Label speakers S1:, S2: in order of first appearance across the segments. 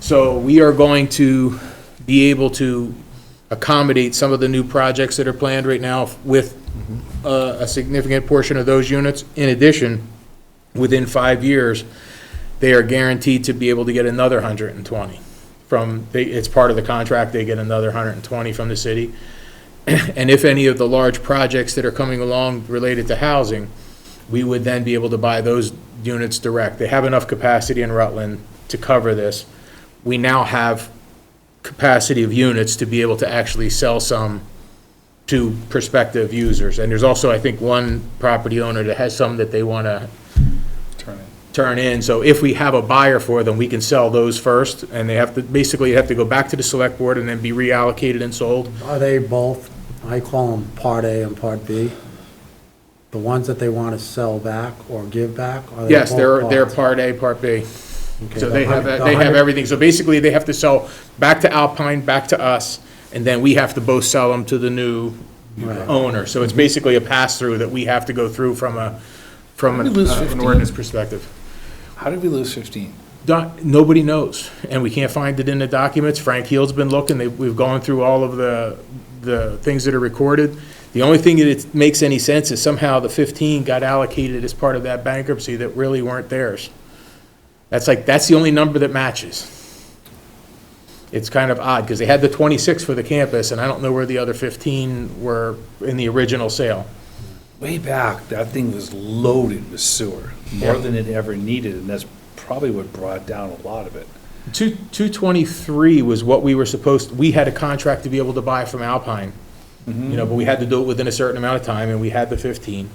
S1: So we are going to be able to accommodate some of the new projects that are planned right now with uh, a significant portion of those units. In addition, within five years, they are guaranteed to be able to get another 120 from, they- it's part of the contract, they get another 120 from the city. And if any of the large projects that are coming along related to housing, we would then be able to buy those units direct. They have enough capacity in Rutland to cover this. We now have capacity of units to be able to actually sell some to prospective users. And there's also, I think, one property owner that has some that they want to
S2: Turn it.
S1: turn in. So if we have a buyer for them, we can sell those first, and they have to, basically, have to go back to the select board and then be reallocated and sold.
S3: Are they both, I call them Part A and Part B? The ones that they want to sell back or give back? are they
S1: Yes,
S3: both
S1: they're, they're
S3: parts?
S1: Part A, Part B.
S3: Okay,
S1: So
S3: the
S1: they have,
S3: hundred- the
S1: they have
S3: hundred-
S1: everything. So basically, they have to sell back to Alpine, back to us, and then we have to both sell them to the new
S3: Right.
S1: owner. So it's basically a pass-through that we have to go through from a, from
S2: We
S1: an
S2: lose
S1: uh, an
S2: 15.
S1: ordinance perspective.
S2: How did we lose 15?
S1: Doc, nobody knows, and we can't find it in the documents. Frank Heel's been looking, they, we've gone through all of the, the things that are recorded. The only thing that it makes any sense is somehow the fifteen got allocated as part of that bankruptcy that really weren't theirs. That's like, that's the only number that matches. It's kind of odd, because they had the twenty-six for the campus, and I don't know where the other fifteen were in the original sale.
S2: Way back, that thing was loaded with sewer, more
S1: Yeah.
S2: than it ever needed, and that's probably what brought down a lot of it.
S1: Two, two twenty-three was what we were supposed, we had a contract to be able to buy from Alpine. You know, but we had to do it within a certain amount of time, and we had the fifteen.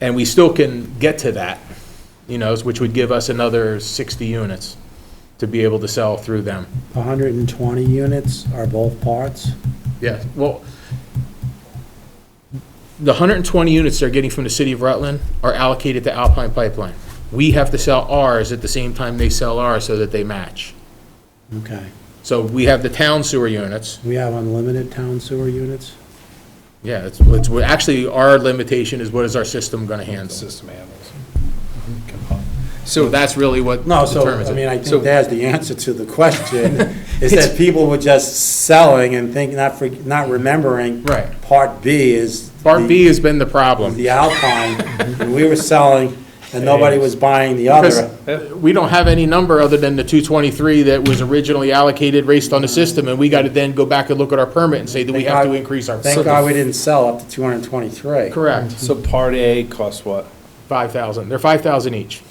S1: And we still can get to that, you know, which would give us another sixty units to be able to sell through them.
S3: the 120 units are both parts?
S1: Yeah, well, the hundred and twenty units they're getting from the city of Rutland are allocated to Alpine Pipeline. We have to sell ours at the same time they sell ours so that they match.
S3: Okay.
S1: So we have the town sewer units,
S3: We have unlimited town sewer units?
S1: Yeah, it's, it's, well, actually, our limitation is what is our system gonna
S2: The
S1: handle?
S2: system handles.
S1: Mm-hmm.
S2: Can pump.
S1: So that's really what
S3: No, so,
S1: determines
S3: I
S1: it.
S3: mean, I
S2: So-
S3: think that's the answer to the question, is that people were just selling and think, not, for- not remembering.
S1: Right.
S3: Part B is.
S1: Part
S3: the-
S1: B has been the problem.
S3: The Alpine, and we were selling, and nobody was buying the other.
S1: Because we don't have any number other than the two twenty-three that was originally allocated based on the system, and we gotta then go back and look at our permit and say, do we have to increase our?
S3: Thank God we didn't sell up to 223.
S1: Correct,
S2: So part A costs what?
S1: five thousand, they're five thousand each.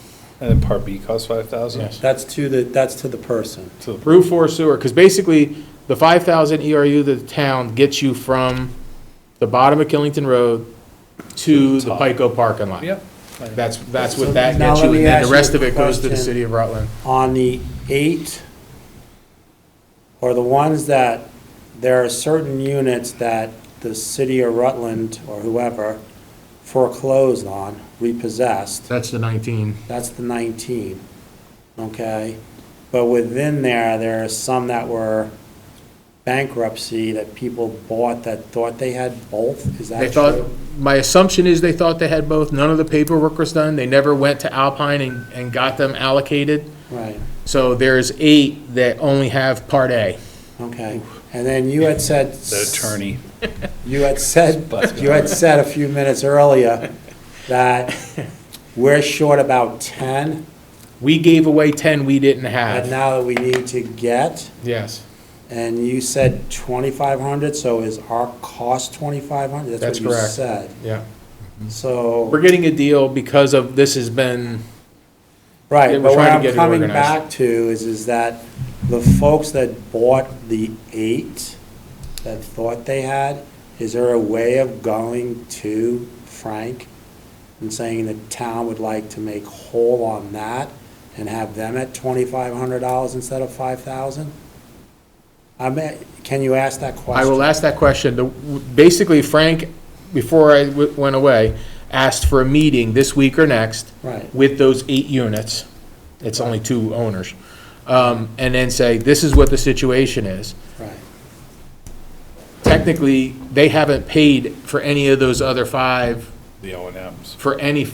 S2: And then part B costs 5,000?
S1: Yes.
S3: That's to the, that's to the person.
S2: So
S1: Route four sewer, because basically, the five thousand ERU that the town gets you from the bottom of Killington Road to the Pico parking lot.
S2: Yep.
S1: That's, that's
S3: So
S1: what that
S3: now
S1: gets
S3: let
S1: you,
S3: me
S1: and then
S3: ask
S1: the
S3: you
S1: rest
S3: a
S1: of it goes to the
S3: question.
S1: city of Rutland.
S3: On the eight, or the ones that, there are certain units that the city of Rutland or whoever foreclosed on, repossessed,
S1: That's the 19.
S3: that's the 19, okay? But within there, there are some that were bankruptcy that people bought that thought they had both, is
S1: They
S3: that
S1: thought,
S3: true?
S1: my assumption is they thought they had both, none of the paperwork was done, they never went to Alpine and, and got them allocated.
S3: Right,
S1: So there's eight that only have Part A.
S3: okay. And then you had said.
S2: The attorney.
S3: You had said,
S2: But-
S3: you had said a few minutes earlier that we're short about 10,
S1: We gave away 10 we didn't
S3: and
S1: have.
S3: now that we need to get,
S1: Yes,
S3: and you said 2,500, so is our cost 2,500?
S1: That's
S3: what you
S1: correct.
S3: said.
S1: yeah. We're
S3: So,
S1: getting a deal because of, this has been,
S3: right,
S1: we're
S3: but what
S1: trying to
S3: I'm
S1: get it
S3: coming
S1: organized.
S3: back to is, is that the folks that bought the eight, that thought they had, is there a way of going to Frank and saying the town would like to make whole on that and have them at twenty-five hundred dollars instead of five thousand? I mean, can you ask that
S1: I
S3: question?
S1: will ask that question. The- Basically, Frank, before I w- went away, asked for a meeting this week or next.
S3: Right.
S1: with those eight units, it's only two owners, um, and then say, this is what the situation is.
S3: Right,
S1: Technically, they haven't paid for any of those other five
S2: The O and Ms.
S1: for any,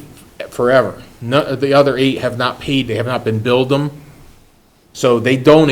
S1: forever. None, the other eight have not paid, they have not been billed them, so they don't